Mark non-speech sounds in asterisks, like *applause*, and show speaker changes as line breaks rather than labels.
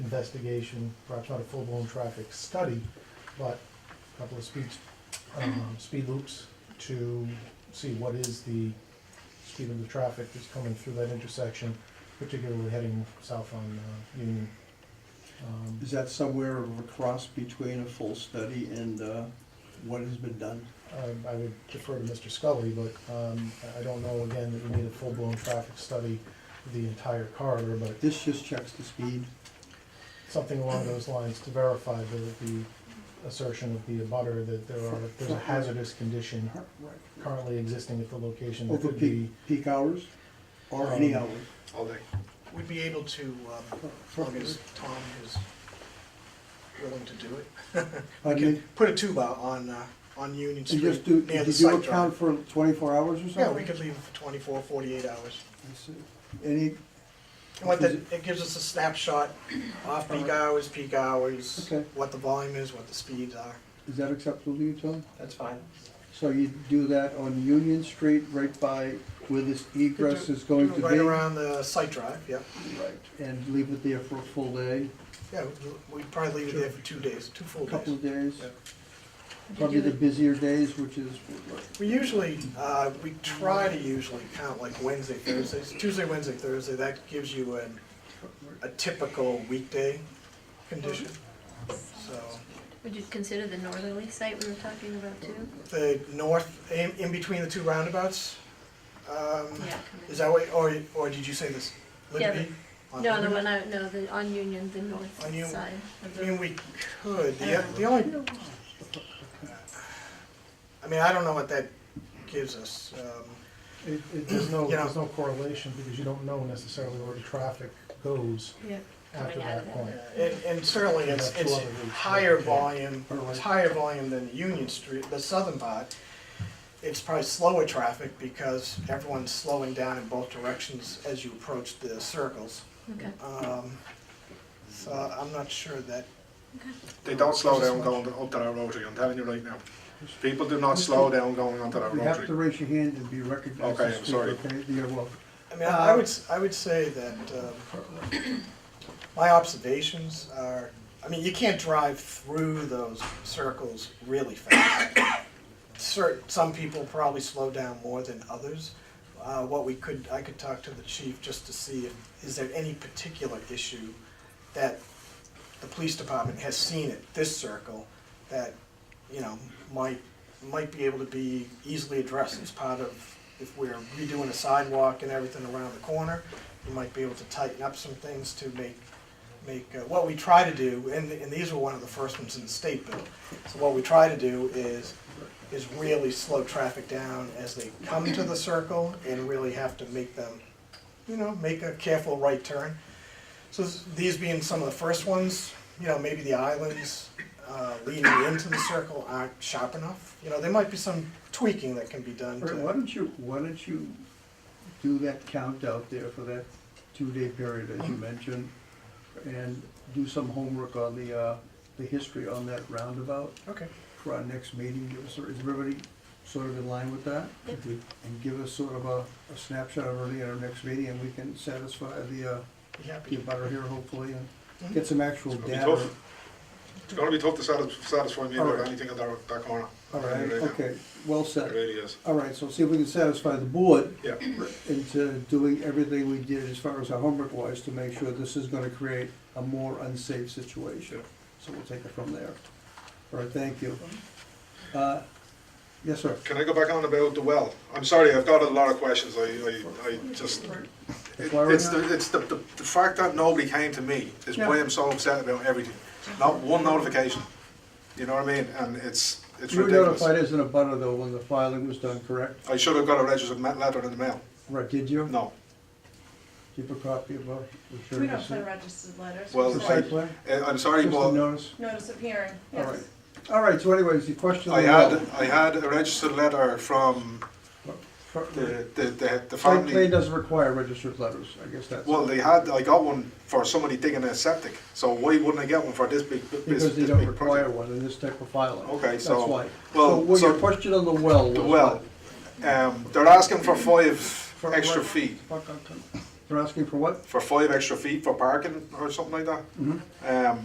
investigation, perhaps not a full-blown traffic study, but a couple of speeds, um, speed loops to see what is the speed of the traffic that's coming through that intersection, particularly heading south on uh, Union. Um,
Is that somewhere of a cross between a full study and uh, what has been done?
Um, I would defer to Mr. Scully, but um, I- I don't know, again, that we need a full-blown traffic study of the entire corridor, but
This just checks the speed.
something along those lines to verify the, the assertion of the abutter that there are, there's a hazardous condition currently existing at the location that
Over
could
peak,
be,
peak hours or any
Um,
hours?
All day. We'd be able to, um, as long as Tom is willing to do it. We
Pardon me?
can put a tube out on, uh, on Union
And just
Street
do,
near the
did you
site
account
drive.
for twenty-four hours or something?
Yeah, we could leave for 24, 48 hours.
I see. Any,
And what that, it gives us a snapshot, off-peak hours, peak hours,
Okay.
what the volume is, what the speeds are.
is that acceptable to you, Tom?
That's fine.
So you do that on Union Street, right by where this egress is going to be?
Right around the site drive, yeah.
Right, and leave it there for a full day,
Yeah, we- we'd probably leave it there for two days, two full
a couple
days.
of days?
Yeah.
Probably the busier days, which is,
We usually, uh, we try to usually count like Wednesday, Thursdays, Tuesday, Wednesday, Thursday, that gives you an, a typical weekday condition. So,
Would you consider the northerly site we were talking about too?
the north, in, in between the two roundabouts, um,
Yeah.
is that what, or, or did you say this?
Yeah,
Liberty? On
No, the
Liberty?
one I, no, the, on Union, the north
On Union.
side of
I mean,
the.
we could, the, the only, I mean, I don't know what that gives us, um,
it, it, there's no,
Yeah.
there's no correlation because you don't know necessarily where the traffic goes
Yeah,
after
Coming out
that
of that.
point.
And, and certainly it's, it's higher volume, it's higher volume than the Union Street, the southern part. It's probably slower traffic because everyone's slowing down in both directions as you approach the circles.
okay,
Um, So I'm not sure that,
They don't slow down going to- up to that rotary, I'm telling you right now. People do not slow down going onto that
you have to
rotary.
raise your hand and be recognized.
Okay,
as
I'm
speaker,
sorry.
Okay, you're welcome.
I mean, I would, s- I would say that, um, *coughs* my observations are, I mean, you can't drive through those circles really fast. Certain, some people probably slow down more than others. Uh, what we could, I could talk to the chief just to see if, is there any particular issue that the police department has seen at this circle that, you know, might, might be able to be easily addressed as part of, if we're redoing a sidewalk and everything around the corner, we might be able to tighten up some things to make, make, uh, what we try to do, and, and these were one of the first ones in the state bill. So what we try to do is, is really slow traffic down as they come to the circle and really have to make them, you know, make a careful right turn. So s- these being some of the first ones, you know, maybe the islands uh, leading into the circle aren't sharp enough. You know, there might be some tweaking that can be done
All right, why
to,
don't you, why don't you do that count out there for that two-day period as *clears throat* you mentioned? And do some homework on the, uh, the history on that roundabout
okay.
for our next meeting. Give us, is everybody sort of in line with that?
Yep.
And give us sort of a a snapshot of early at our next meeting and we can satisfy the, uh,
Be happy
the
to
butter here hopefully and
Mhm.
get some actual
It's gonna be
data.
tough. It's gonna be tough to satis- satisfy me
All
about
right.
anything in that, that corner.
All right,
Right now.
okay, well
It
said.
really is,
All right, so see if we can satisfy the board
yeah.
into doing everything we did as far as our homework was to make sure this is gonna create a more unsafe situation. So we'll take it from there. All right, thank you. Uh, Yes, sir.
Can I go back on about the well? I'm sorry, I've got a lot of questions, I, I, I just,
That's why we're
it's
not-
the, it's the, the the fact that nobody came to me is why
Yeah.
I'm so upset about everything. Not one notification, you know what I mean? And it's, it's
You were
ridiculous.
notified as an abutter though when the filing was done, correct?
I should have got a registered ma- letter in the mail,
Right, did you?
no.
Keep a copy of uh, our.
We don't put registered letters.
Well,
we
The
send
site plan?
Uh, I'm sorry,
Just a
but
notice?
Notice of hearing,
All right.
yes.
All right, so anyways, the question.
I had, I had a registered letter from the, the, the, the
Site plan
family.
doesn't require registered letters, I guess that's.
Well, they had, I got one for somebody digging a septic, so why wouldn't I get one for this big, this,
Because they
this
don't
big
require
project?
one in this type of filing.
Okay,
That's
so-
why.
well,
So, well, your
so-
question on the well was
The
what?
well, um, they're asking for five
For
extra
what?
feet.
Fuck, I couldn't- They're asking for what? Mm-hmm.
for five extra feet for parking or something like that. Um,